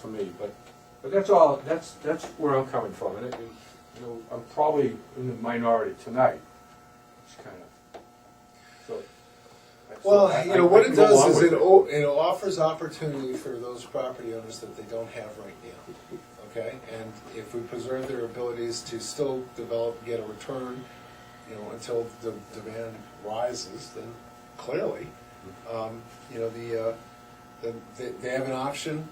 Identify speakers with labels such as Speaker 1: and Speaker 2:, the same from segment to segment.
Speaker 1: for me, but, but that's all, that's, that's where I'm coming from, and, it- and, you know, I'm probably in the minority tonight, it's kind of, so. so I-
Speaker 2: Well, you know,
Speaker 1: I- I
Speaker 2: what it
Speaker 1: can go along
Speaker 2: does is
Speaker 1: with
Speaker 2: it, o- it offers opportunity for those property owners that they don't have right now, okay? And if we preserve their abilities to still develop, get a return, you know, until the demand rises, then clearly, um, you know, the, uh, the, they- they have an option,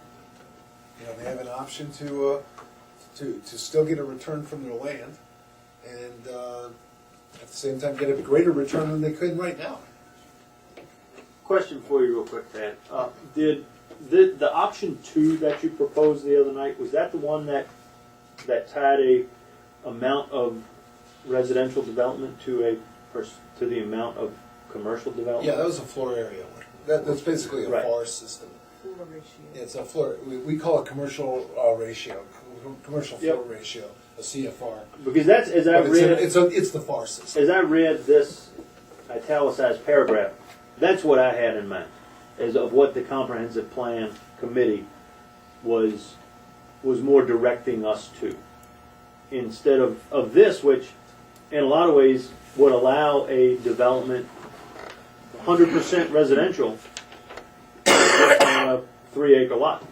Speaker 2: you know, they have an option to, uh, to, to still get a return from their land and, uh, at the same time, get a greater return than they could right now.
Speaker 3: Question for you, real quick, Pat. Uh, did the the option two that you proposed the other night was that the one that that tied a amount of residential development to a pers- to the amount of commercial
Speaker 2: Yeah,
Speaker 3: development?
Speaker 2: that was a floor area one. That, that's basically a
Speaker 3: Right.
Speaker 2: forest system.
Speaker 4: Floor ratio.
Speaker 2: It's a floor, we, we call it commercial uh, ratio, com- commercial floor
Speaker 3: Yep.
Speaker 2: ratio, a CFR.
Speaker 3: Because that's as I
Speaker 2: But it's,
Speaker 3: read
Speaker 2: a, it's, a, it's the FAR system.
Speaker 3: as I read this italicized paragraph. That's what I had in mind, as of what the comprehensive plan committee was was more directing us to, instead of of this, which in a lot of ways would allow a development 100% residential on a three acre lot.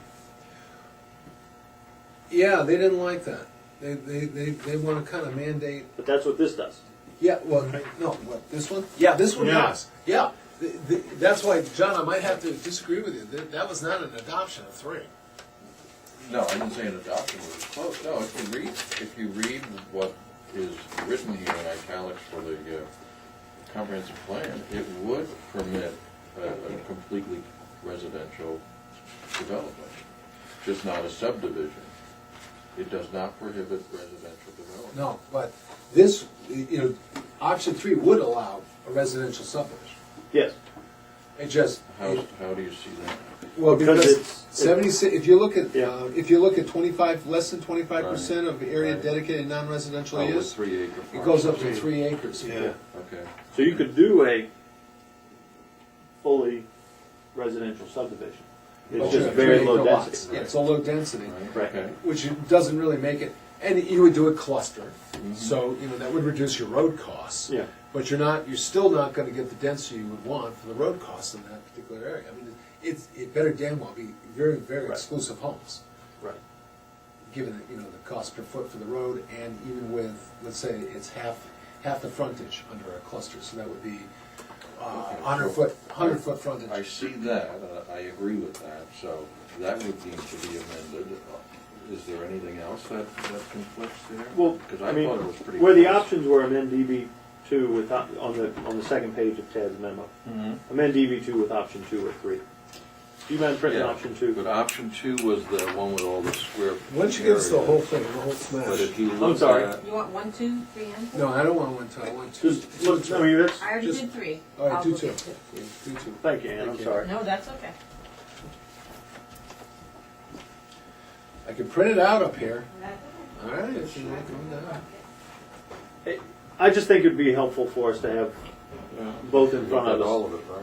Speaker 2: Yeah, they didn't like that. They, they, they, they want to kind of mandate.
Speaker 3: But that's what this does.
Speaker 2: Yeah, well, no, what, this one? Yeah, this one
Speaker 3: Yeah.
Speaker 2: does. Yeah. The, the, that's why, John, I might have to disagree with you. That, that was not an adoption of three.
Speaker 5: No, I didn't say an adoption was close, no, if you read, if you read what is written here in italics for the uh, comprehensive plan, it would permit a a completely residential development, just not a subdivision. It does not prohibit residential development.
Speaker 2: No, but this, you know, option three would allow a residential subdivision.
Speaker 3: Yes.
Speaker 2: It just,
Speaker 5: How, how do you see that?
Speaker 2: Well,
Speaker 3: Because
Speaker 2: because
Speaker 3: it's-
Speaker 2: seventy-six, if you look at,
Speaker 3: Yeah.
Speaker 2: uh, if you look at twenty-five, less than twenty-five percent
Speaker 5: Right,
Speaker 2: of area
Speaker 5: right.
Speaker 2: dedicated non-residential
Speaker 5: Oh, with
Speaker 2: use,
Speaker 5: three acre.
Speaker 2: it goes up to
Speaker 5: parcels.
Speaker 2: three acres.
Speaker 5: Okay,
Speaker 3: So you could do a fully residential subdivision. It's
Speaker 2: Well,
Speaker 3: just
Speaker 2: sure,
Speaker 3: very
Speaker 2: three
Speaker 3: low
Speaker 2: acre lots.
Speaker 3: density.
Speaker 2: Yeah, It's a low density,
Speaker 5: right,
Speaker 3: Right.
Speaker 5: okay.
Speaker 2: which doesn't really make it, and you would do a cluster, so, you know, that would reduce your road costs.
Speaker 3: Mm-hmm. Yeah.
Speaker 2: But you're not, you're still not gonna get the density you would want for the road costs in that particular area. I mean, it's, it better damn well be very, very
Speaker 3: Right.
Speaker 2: exclusive homes.
Speaker 3: Right.
Speaker 2: given, you know, the cost per foot for the road, and even with, let's say, it's half, half the frontage under a cluster, so that would be uh,
Speaker 5: Okay,
Speaker 2: hundred
Speaker 5: so-
Speaker 2: foot, hundred foot
Speaker 5: I
Speaker 2: frontage.
Speaker 5: see that, uh, I agree with that, so that would need to be amended. Uh, Is there anything else that, that conflicts there?
Speaker 3: Well,
Speaker 5: Because
Speaker 3: I
Speaker 5: I
Speaker 3: mean,
Speaker 5: thought it was pretty.
Speaker 3: where the
Speaker 5: close.
Speaker 3: options were amend DB two with, op- on the, on the second page of Tad's memo. Amend DB two with option two or three. Do you mind printing
Speaker 5: Yeah,
Speaker 3: option two?
Speaker 5: But option two was the one with all the square.
Speaker 2: Once you give us the
Speaker 5: area.
Speaker 2: whole thing, the whole
Speaker 5: But
Speaker 2: smash.
Speaker 5: if you look
Speaker 3: sorry.
Speaker 5: at,
Speaker 4: You want one, two, three, and four?
Speaker 2: No, I don't want one two, I want two.
Speaker 3: Just, look, I mean, that's,
Speaker 4: I already
Speaker 2: just-
Speaker 4: did three.
Speaker 2: All right,
Speaker 4: I'll
Speaker 2: do
Speaker 4: look
Speaker 2: two.
Speaker 4: at
Speaker 2: Yeah, Do two.
Speaker 3: thank you, Ann, I'm
Speaker 2: Okay.
Speaker 3: sorry.
Speaker 4: No, that's okay.
Speaker 2: I can print it out up here.
Speaker 4: That's okay.
Speaker 2: All right, if you want to come down.
Speaker 3: I just think it'd be helpful for us to have
Speaker 5: Yeah.
Speaker 3: both in
Speaker 5: look
Speaker 3: front
Speaker 5: at
Speaker 3: of
Speaker 5: all
Speaker 3: us.
Speaker 5: of it, right?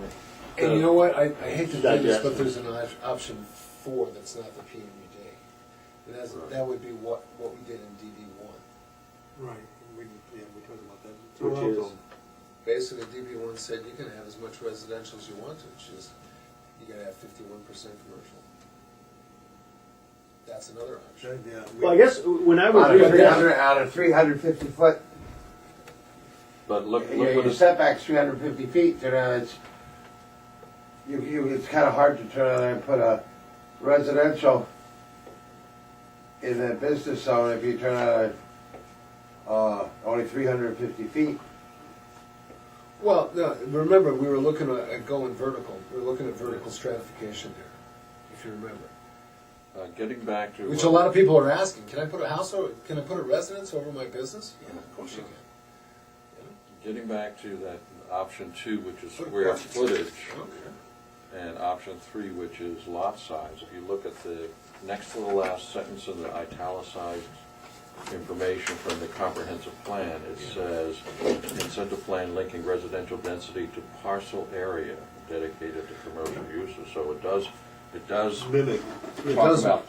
Speaker 2: And you know what, I, I hate to do this,
Speaker 3: Digestion.
Speaker 2: but there's an op- option four that's not the PMUD. And that's,
Speaker 5: Right.
Speaker 2: that would be what, what we did in DD one.
Speaker 6: Right, we, yeah, we talked about that.
Speaker 3: Which is-
Speaker 6: Toronto.
Speaker 2: Basically, DB one said you can have as much residential as you want to, it's just, you gotta have fifty-one percent commercial. That's another option.
Speaker 6: Yeah, we-
Speaker 3: Well, I guess when I was
Speaker 7: Out of
Speaker 3: reading
Speaker 7: three
Speaker 3: that,
Speaker 7: hundred, out of three hundred fifty foot,
Speaker 5: But look,
Speaker 7: your
Speaker 5: look
Speaker 7: your
Speaker 5: what it's, uh,
Speaker 7: setback's three hundred fifty feet, you know, it's, you, you, it's kinda hard to turn around and put a residential in a business zone if you turn out, uh, only three hundred fifty feet.
Speaker 2: Well, no, remember, we were looking at at going vertical, we were looking at vertical stratification there, if you remember.
Speaker 5: uh, getting back to.
Speaker 2: Which a
Speaker 5: what-
Speaker 2: lot of people are asking, can I put a house over, can I put a residence over my business? Yeah, of course you can.
Speaker 5: uh, Getting back to that option two, which is
Speaker 2: Put a
Speaker 5: square
Speaker 2: parking
Speaker 5: footage.
Speaker 2: Okay.
Speaker 5: and option three, which is lot size. If you look at the next to the last sentence of the italicized information from the comprehensive plan, it says, incentive plan linking residential density to parcel area dedicated to commercial uses. So it does, it does
Speaker 6: Mimic.
Speaker 2: It
Speaker 5: talk
Speaker 2: does-
Speaker 5: about